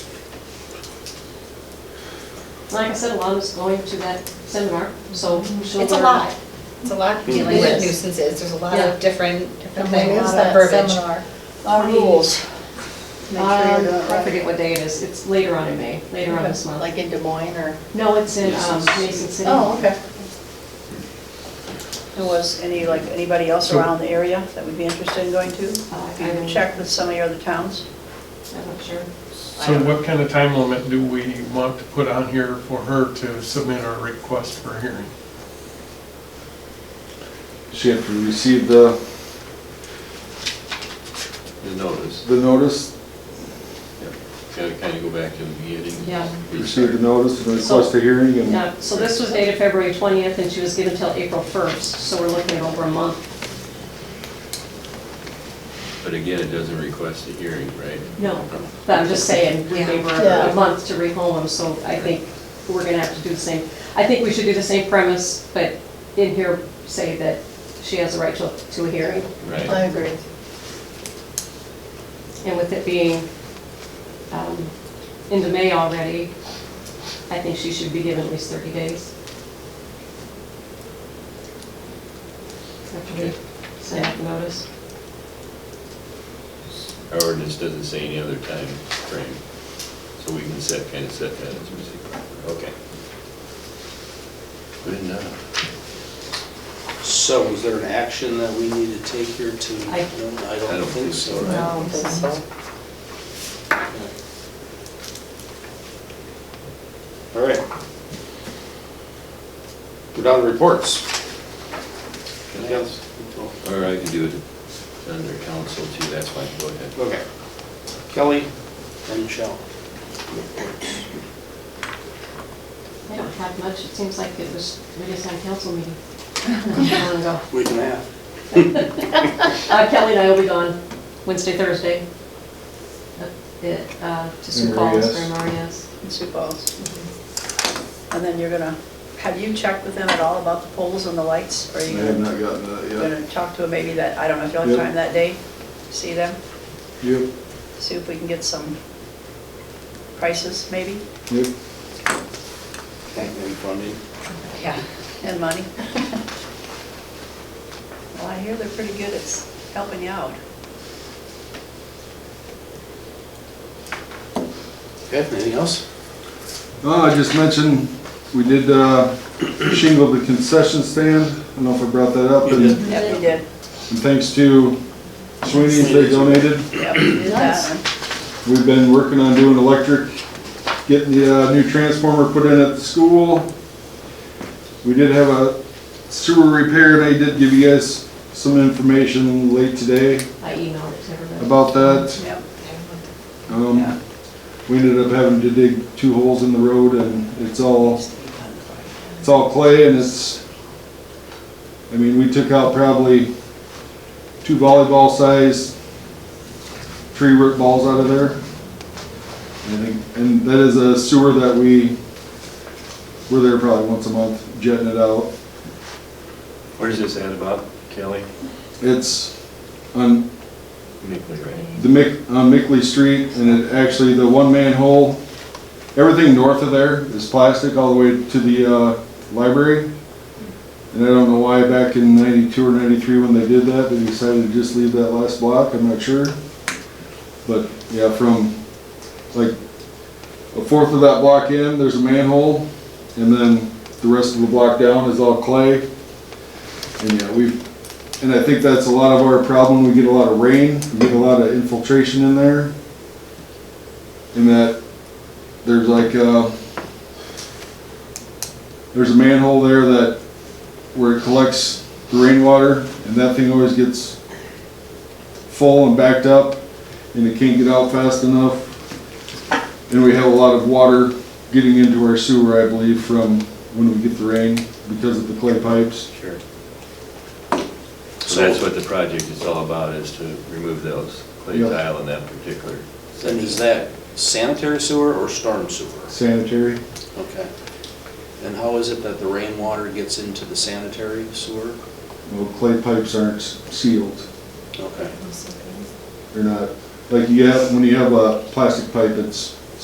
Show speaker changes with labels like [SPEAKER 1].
[SPEAKER 1] Like I said, Alana's going to that seminar, so
[SPEAKER 2] Mhm.
[SPEAKER 1] she'll.
[SPEAKER 3] It's a
[SPEAKER 1] learn.
[SPEAKER 3] lot. It's a lot dealing
[SPEAKER 1] It
[SPEAKER 3] with
[SPEAKER 1] is.
[SPEAKER 3] nuisances. There's a lot
[SPEAKER 1] Yeah.
[SPEAKER 3] of different, different
[SPEAKER 2] And when
[SPEAKER 3] things,
[SPEAKER 2] is
[SPEAKER 3] a lot of
[SPEAKER 2] that
[SPEAKER 3] verbiage.
[SPEAKER 2] seminar?
[SPEAKER 1] Our rules.
[SPEAKER 2] Make sure you're doing
[SPEAKER 1] Um,
[SPEAKER 2] it
[SPEAKER 1] I
[SPEAKER 2] right.
[SPEAKER 1] forget what day it is, it's later on in May, later on this month.
[SPEAKER 2] Like in Des Moines or?
[SPEAKER 1] No, it's in um,
[SPEAKER 4] Mason City.
[SPEAKER 1] Mason City.
[SPEAKER 2] Oh, okay. And was any, like, anybody else around the area that would be interested in going to?
[SPEAKER 1] Uh,
[SPEAKER 2] Have
[SPEAKER 1] I'm
[SPEAKER 2] you checked with some of your other towns?
[SPEAKER 1] I'm not sure.
[SPEAKER 5] So what kind of time limit do we want to put on here for her to submit our request for hearing?
[SPEAKER 6] She had to receive the,
[SPEAKER 4] the notice.
[SPEAKER 6] the notice,
[SPEAKER 4] Gotta kind of go back to the beginning.
[SPEAKER 1] Yeah.
[SPEAKER 6] receive the notice and request a hearing and
[SPEAKER 1] Yeah, so this was dated February 20th, and she was given till April 1st, so we're looking at over a month.
[SPEAKER 4] But again, it doesn't request a hearing, right?
[SPEAKER 1] No. But I'm just saying, we gave her
[SPEAKER 2] Yeah.
[SPEAKER 1] a month to rehome them, so I think we're gonna have to do the same. I think we should do the same premise, but in here say that she has the right to, to a hearing.
[SPEAKER 4] Right,
[SPEAKER 2] agree.
[SPEAKER 1] And with it being um, into May already, I think she should be given at least 30 days. After we
[SPEAKER 4] Okay.
[SPEAKER 1] send out the notice.
[SPEAKER 4] our ordinance doesn't say any other time frame, so we can set, kind of set that as we see. Okay. Good enough.
[SPEAKER 7] So is there an action that we need to take here to?
[SPEAKER 1] I-
[SPEAKER 7] No, I don't think so.
[SPEAKER 4] right?
[SPEAKER 2] No, I don't think so.
[SPEAKER 7] All right. Go down to reports. Anything else?
[SPEAKER 4] Or I can do it under council too, that's fine, go ahead.
[SPEAKER 7] Okay. Kelly and Michelle. reports.
[SPEAKER 1] I don't have much, it seems like it was, we just had a council meeting. Not long ago.
[SPEAKER 7] Week and a half.
[SPEAKER 1] Uh, Kelly and I will be gone Wednesday, Thursday. Uh, it, uh, To Sioux Falls for
[SPEAKER 6] MRES.
[SPEAKER 1] MRES.
[SPEAKER 2] In Sioux Falls. And then you're gonna, have you checked with them at all about the poles and the lights? Or
[SPEAKER 6] I
[SPEAKER 2] Are you
[SPEAKER 6] have
[SPEAKER 2] gonna-
[SPEAKER 6] not gotten that
[SPEAKER 2] gonna talk to them maybe that, I don't know if you'll have
[SPEAKER 6] Yep.
[SPEAKER 2] time that day, see them,
[SPEAKER 6] yet. Yep,
[SPEAKER 2] see if we can get some prices maybe,
[SPEAKER 6] yep.
[SPEAKER 7] Thank you for funding.
[SPEAKER 2] yeah, and money? Well, I hear they're pretty good at s- helping you out.
[SPEAKER 7] Okay, anything else?
[SPEAKER 6] No, Oh, I just mentioned, we did uh, shingle the concession stand. I don't know if I brought that up.
[SPEAKER 7] You
[SPEAKER 6] and-
[SPEAKER 7] did.
[SPEAKER 2] Yeah, we did,
[SPEAKER 6] And thanks to Sweeney's, they donated.
[SPEAKER 2] yeah, we did
[SPEAKER 1] Nice.
[SPEAKER 2] that one.
[SPEAKER 6] We've been working on doing electric, getting the uh, new transformer put in at the school. We did have a sewer repair, and I did give you guys some information late today
[SPEAKER 1] I emailed it to everybody.
[SPEAKER 6] about that.
[SPEAKER 2] Yep. Yeah.
[SPEAKER 6] Um, We ended up having to dig two holes in the road, and it's all, it's all clay, and it's, I mean, we took out probably two volleyball-sized tree root balls out of there. And I think, and that is a sewer that we, we're there probably once a month jetting it out.
[SPEAKER 4] Where's this at about, Kelly?
[SPEAKER 6] It's on
[SPEAKER 4] Nicolay, right?
[SPEAKER 6] the Mick, on Mickley Street, and it actually, the one manhole, everything north of there is plastic all the way to the, uh, library. And I don't know why back in ninety-two or ninety-three when they did that, they decided to just leave that last block, I'm not sure. But, yeah, from, like, a fourth of that block in, there's a manhole, and then the rest of the block down is all clay. And, yeah, we've and I think that's a lot of our problem. We get a lot of rain, we get a lot of infiltration in there. And that, there's like, uh, there's a manhole there that, where it collects the rainwater, and that thing always gets full and backed up, and it can't get out fast enough. And we have a lot of water getting into our sewer, I believe, from when we get the rain, because of the clay pipes.
[SPEAKER 4] Sure. So that's what the project is all about, is to remove those clay
[SPEAKER 6] Yeah.
[SPEAKER 4] tile in that particular
[SPEAKER 7] And is that sanitary sewer or storm sewer?
[SPEAKER 6] Sanitary.
[SPEAKER 7] Okay. And how is it that the rainwater gets into the sanitary sewer?
[SPEAKER 6] Well, clay pipes aren't s- sealed.
[SPEAKER 7] Okay.
[SPEAKER 6] They're not, like you have, when you have a plastic pipe, it's